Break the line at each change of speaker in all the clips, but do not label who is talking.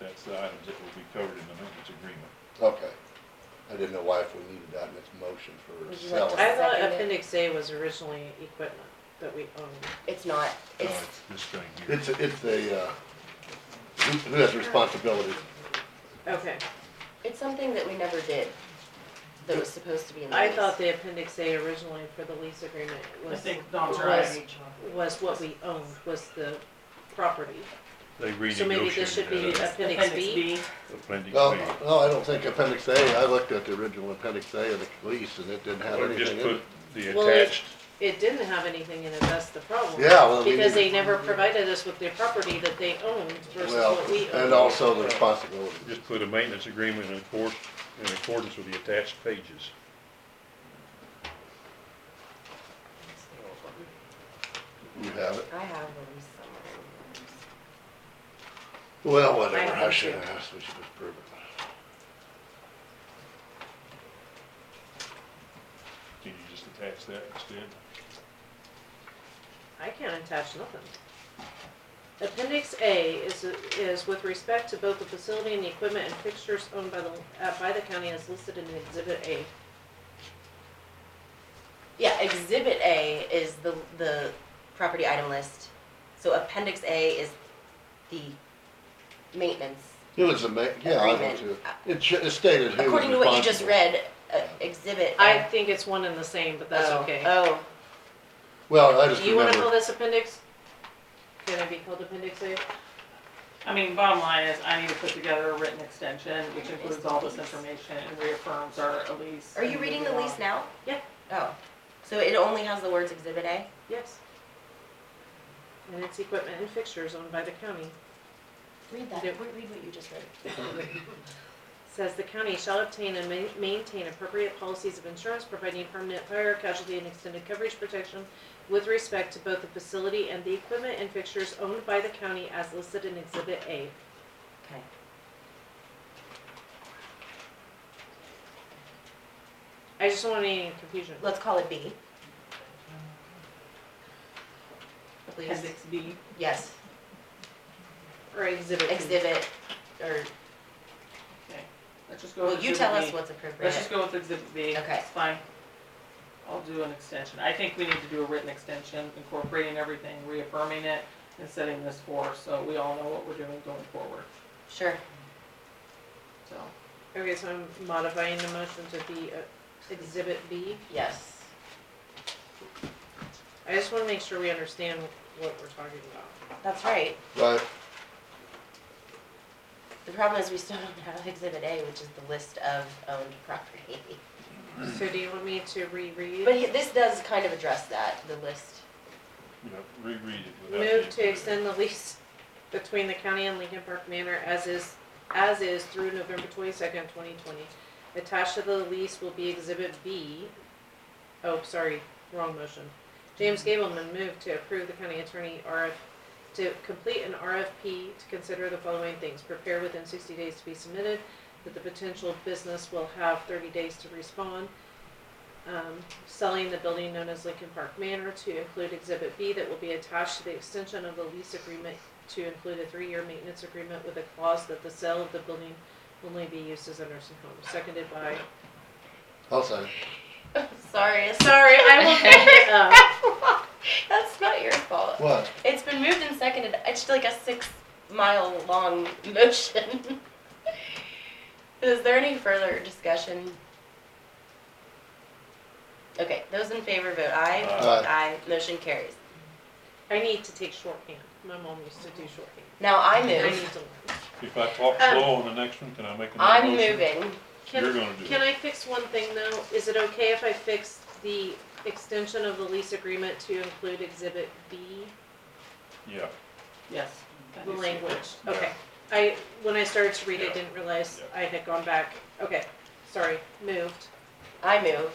that's the items that will be covered in the maintenance agreement.
Okay. I didn't know why if we needed that in its motion for
Would you like
selling.
to-
I thought
Second it.
appendix A was originally equipment that we owned.
It's not,
No,
Um,
it's,
it's this thing here.
It's, a- it's a, uh, who who has responsibility?
Okay,
it's something that we never did, that was supposed to be in the
I
lease.
thought the appendix A originally for the lease agreement
I
was,
think Dom's
was-
right.
was what we owned, was the property.
They
So maybe this should be
renegotiated uh, that
appendix B?
appendix
No,
B.
no, I don't think appendix A, I looked at the original appendix A of the lease and it didn't have
Or just
anything in it.
put the
Well, it-
attached,
It didn't have anything in it, that's the problem.
Yeah, well, we
Because
need,
they never provided us with the property that they owned versus
well,
what we
and
owned.
also the responsibility.
just put a maintenance agreement in accord, in accordance with the attached pages.
You have it.
I have the lease somewhere.
Well, whatever,
have
I
it
shouldn't
too.
have asked, we should just prove it.
Can you just attach that instead?
I can't attach nothing. Appendix A is, is with respect to both the facility and the equipment and fixtures owned by the, uh, by the county as listed in exhibit A.
Yeah, exhibit A is the, the property item list, so appendix A is the maintenance.
It was a ma, yeah, I know too.
Agreement.
It should, it stated who was
According to what you just
responsible.
read, uh, exhibit.
I
A-
think it's one and the same, but that's
oh,
okay.
Oh,
Well, I just
Do you wanna call
remember,
this appendix? Can it be called appendix A?
I mean, bottom line is, I need to put together a written extension, which includes all this information and reaffirms our lease.
are you
and
reading the
moving
lease
on.
now?
Yeah.
Oh, so it only has the words exhibit A?
Yes. And it's equipment and fixtures owned by the county.
Read that,
Yeah.
read read what you just read.
Says the county shall obtain and ma- maintain appropriate policies of insurance providing permanent fire, casualty, and extended coverage protection with respect to both the facility and the equipment and fixtures owned by the county as listed in Exhibit A.
Okay.
I just don't want any confusion.
Let's call it B. Please,
Appendix B.
yes,
Or Exhibit B.
exhibit, or,
Okay. Let's just go
well,
with
you tell
exhibit
us
B.
what's
Let's just
appropriate.
go with exhibit B.
Okay.
It's fine. I'll do an extension. I think we need to do a written extension incorporating everything, reaffirming it and setting this for, so we all know what we're doing going forward,
Sure,
so.
Okay, so I'm modifying the motion to be uh, Exhibit B.
yes.
I just want to make sure we understand what we're talking about.
That's right.
right,
The problem is we still don't have exhibit A, which is the list of owned property.
So do you want me to reread?
But he- this does kind of address that, the list.
You know, reread it without. the-
Move to extend the lease between the county and Lincoln Park Manor as is, as is through November twenty-second, twenty twenty. Attached to the lease will be exhibit B. Oh, sorry, wrong motion. James Gableman moved to approve the county attorney RF, to complete an RFP to consider the following things. Prepare within sixty days to be submitted, that the potential business will have thirty days to respond um, selling the building known as Lincoln Park Manor to include Exhibit B that will be attached to the extension of the lease agreement to include a three-year maintenance agreement with a clause that the sale of the building will only be used as a nursing home, seconded by,
I'll say,
Sorry, it's-
sorry, I will bring it up.
that's not your fault.
what?
It's been moved and seconded. It's like a six mile long motion. Is there any further discussion? Okay, those in favor vote aye.
Aye.
motion carries.
I need to take shorthand, my mom used to do shorthand,
Now I
I
move,
need to learn.
If I talk
Um,
slow on the next one, can I make another
I'm
motion?
moving.
You're gonna
Can,
do it.
can I fix one thing though? Is it okay if I fix the extension of the lease agreement to include Exhibit B,
Yeah,
Yes.
the
appendix B.
language?
Yeah.
Okay. I, when I started to read
Yeah.
it, didn't realize I had gone back. Okay, sorry, moved.
I move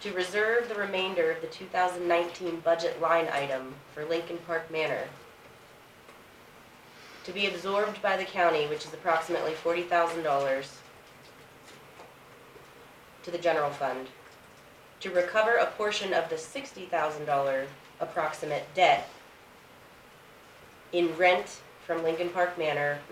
to reserve the remainder of the two thousand nineteen budget line item for Lincoln Park Manor to be absorbed by the county, which is approximately forty thousand dollars to the general fund, to recover a portion of the sixty thousand dollar approximate debt in rent from Lincoln Park Manor